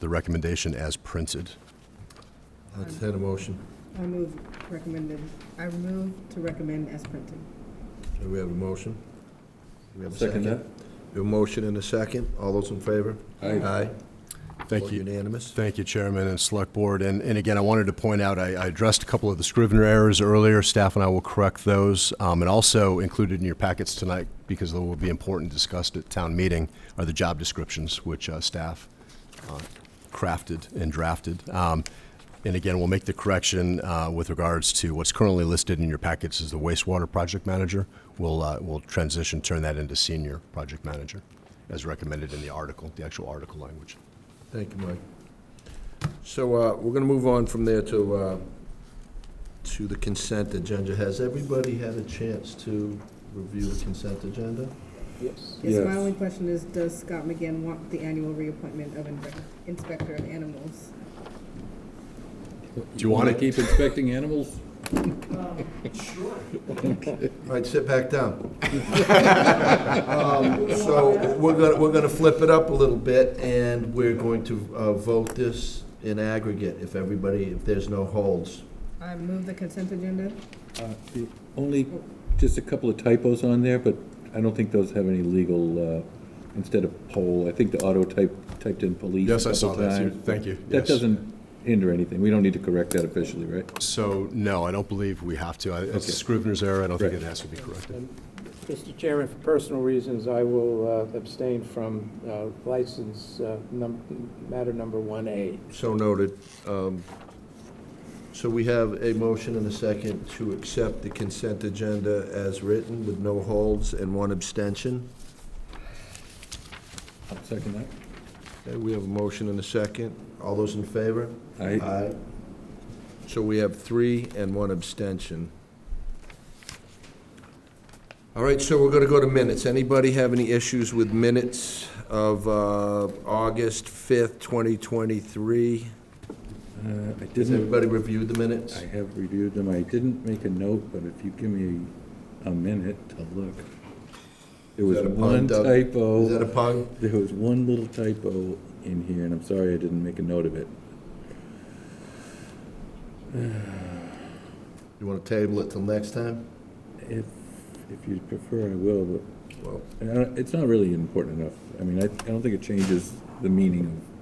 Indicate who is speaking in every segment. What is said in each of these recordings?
Speaker 1: the recommendation as printed.
Speaker 2: Let's hit a motion.
Speaker 3: I move recommended, I move to recommend as printed.
Speaker 2: Do we have a motion? Do we have a
Speaker 4: Second that.
Speaker 2: We have a motion and a second. All those in favor?
Speaker 4: Aye.
Speaker 2: Aye.
Speaker 1: Thank
Speaker 2: Vote
Speaker 1: you.
Speaker 2: Unanimous.
Speaker 1: Thank you, Chairman and Select Board. And, and again, I wanted to point out, I, I addressed a couple of the Scrivener errors earlier. Staff and I will correct those. Um, and also included in your packets tonight, because they will be important discussed at town meeting, are the job descriptions, which, uh, staff, uh, crafted and drafted. Um, and again, we'll make the correction, uh, with regards to what's currently listed in your packets as the wastewater project manager. We'll, uh, we'll transition, turn that into senior project manager, as recommended in the article, the actual article language.
Speaker 2: Thank you, Mike. So uh, we're going to move on from there to, uh, to the consent agenda. Has everybody had a chance to review the consent agenda?
Speaker 3: Yes, my
Speaker 4: Yes.
Speaker 3: only question is, does Scott McGinn want the annual reappointment of inve- inspector of animals?
Speaker 1: you want
Speaker 4: wanna
Speaker 1: it?
Speaker 4: Keep inspecting animals?
Speaker 2: All right, sit back down. Um, So we're gonna, we're gonna flip it up a little bit, and we're going to uh, vote this in aggregate, if everybody, if there's no holds.
Speaker 3: I move the consent agenda.
Speaker 4: Uh, the Only, just a couple of typos on there, but I don't think those have any legal, uh, instead of poll, I think the auto type, typed in police a
Speaker 1: Yes, I saw
Speaker 4: couple
Speaker 1: that, too.
Speaker 4: times.
Speaker 1: Thank you.
Speaker 4: That
Speaker 1: Yes.
Speaker 4: doesn't hinder anything. We don't need to correct that officially, right?
Speaker 1: So, no, I don't believe we have to. I- It's
Speaker 4: Okay.
Speaker 1: Scrivener's error, I don't think it
Speaker 4: Right.
Speaker 1: has to be corrected.
Speaker 5: Mr. Chairman, for personal reasons, I will uh, abstain from uh, license uh, num- matter number 1A.
Speaker 2: So noted. Um, So we have a motion and a second to accept the consent agenda as written with no holds and one abstention.
Speaker 4: I'll second that.
Speaker 2: Okay, we have a motion and a second. All those in favor?
Speaker 4: I,
Speaker 2: So we have three and one abstention. All right, so we're going to go to minutes. Anybody have any issues with minutes of uh, August 5th, 2023?
Speaker 4: uh, I
Speaker 2: Has
Speaker 4: didn't,
Speaker 2: everybody reviewed the minutes?
Speaker 4: I have reviewed them. I didn't make a note, but if you give me a minute to look. There was
Speaker 2: that a pun,
Speaker 4: one
Speaker 2: Doug?
Speaker 4: typo.
Speaker 2: Is that a pun?
Speaker 4: There was one little typo in here, and I'm sorry I didn't make a note of it.
Speaker 2: You want to table it till next time?
Speaker 4: If, if you prefer, I will, but
Speaker 2: Well,
Speaker 4: and I don't- it's not really important enough. I mean, I, I don't think it changes the meaning of,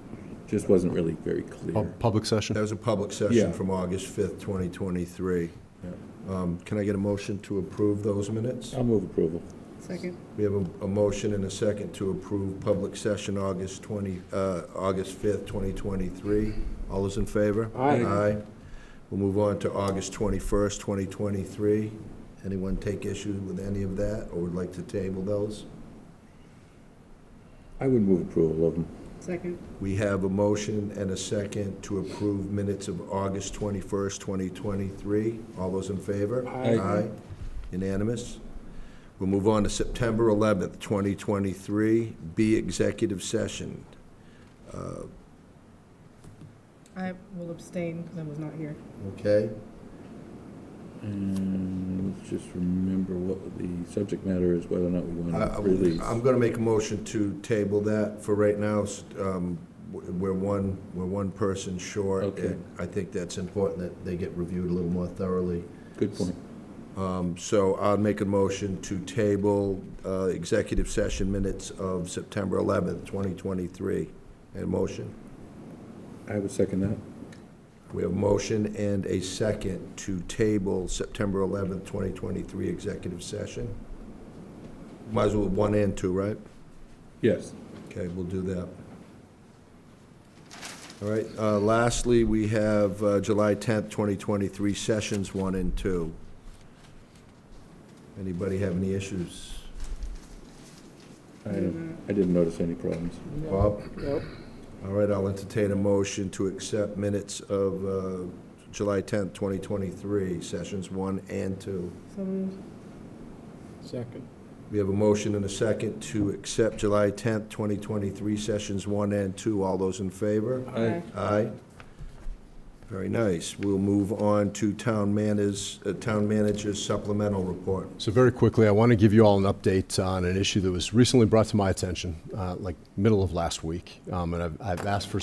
Speaker 4: just wasn't really very clear.
Speaker 2: Oh.
Speaker 1: Pub- Public
Speaker 2: that
Speaker 1: session?
Speaker 2: was a public
Speaker 4: Yeah.
Speaker 2: session from August 5th, 2023.
Speaker 4: Yeah.
Speaker 2: Um, Can I get a motion to approve those minutes?
Speaker 4: I'll move approval.
Speaker 3: Second.
Speaker 2: We have a, a motion and a second to approve public session August 20, uh, August 5th, 2023. All those in favor?
Speaker 5: Aye.
Speaker 2: Aye. We'll move on to August 21st, 2023. Anyone take issue with any of that or would like to table those?
Speaker 4: I would move approval of them.
Speaker 3: Second.
Speaker 2: We have a motion and a second to approve minutes of August 21st, 2023. All those in favor?
Speaker 5: Aye.
Speaker 2: Aye. Unanimous. We'll move on to September 11th, 2023, B, executive session.
Speaker 3: I will abstain because I was not here.
Speaker 2: Okay?
Speaker 4: And let's just remember what the subject matter is, whether or not we
Speaker 2: I-
Speaker 4: want
Speaker 2: I-
Speaker 4: to Mm, release.
Speaker 2: I'm going to make a motion to table that for right now. S- um, w- We're one, we're one person short.
Speaker 4: Okay.
Speaker 2: and I think that's important that they get reviewed a little more thoroughly.
Speaker 4: Good point.
Speaker 2: Um, So I'll make a motion to table uh, executive session minutes of September 11th, 2023. And motion?
Speaker 4: I would second that.
Speaker 2: We have a motion and a second to table September 11th, 2023 executive session. Might as well one and two, right?
Speaker 4: Yes.
Speaker 2: Okay, we'll do that. All right, uh, lastly, we have uh, July 10th, 2023 sessions one and two. Anybody have any issues?
Speaker 4: I, I didn't notice any problems.
Speaker 2: Bob?
Speaker 5: Nope.
Speaker 2: All right, I'll entertain a motion to accept minutes of uh, July 10th, 2023, sessions one and two.
Speaker 3: So moved.
Speaker 5: Second.
Speaker 2: We have a motion and a second to accept July 10th, 2023, sessions one and two. All those in favor?
Speaker 4: Aye.
Speaker 2: Aye. Very nice. We'll move on to town managers, uh, town manager's supplemental report.
Speaker 1: So very quickly, I want to give you all an update on an issue that was recently brought to my attention, uh, like middle of last week. Um, And I've- I've asked for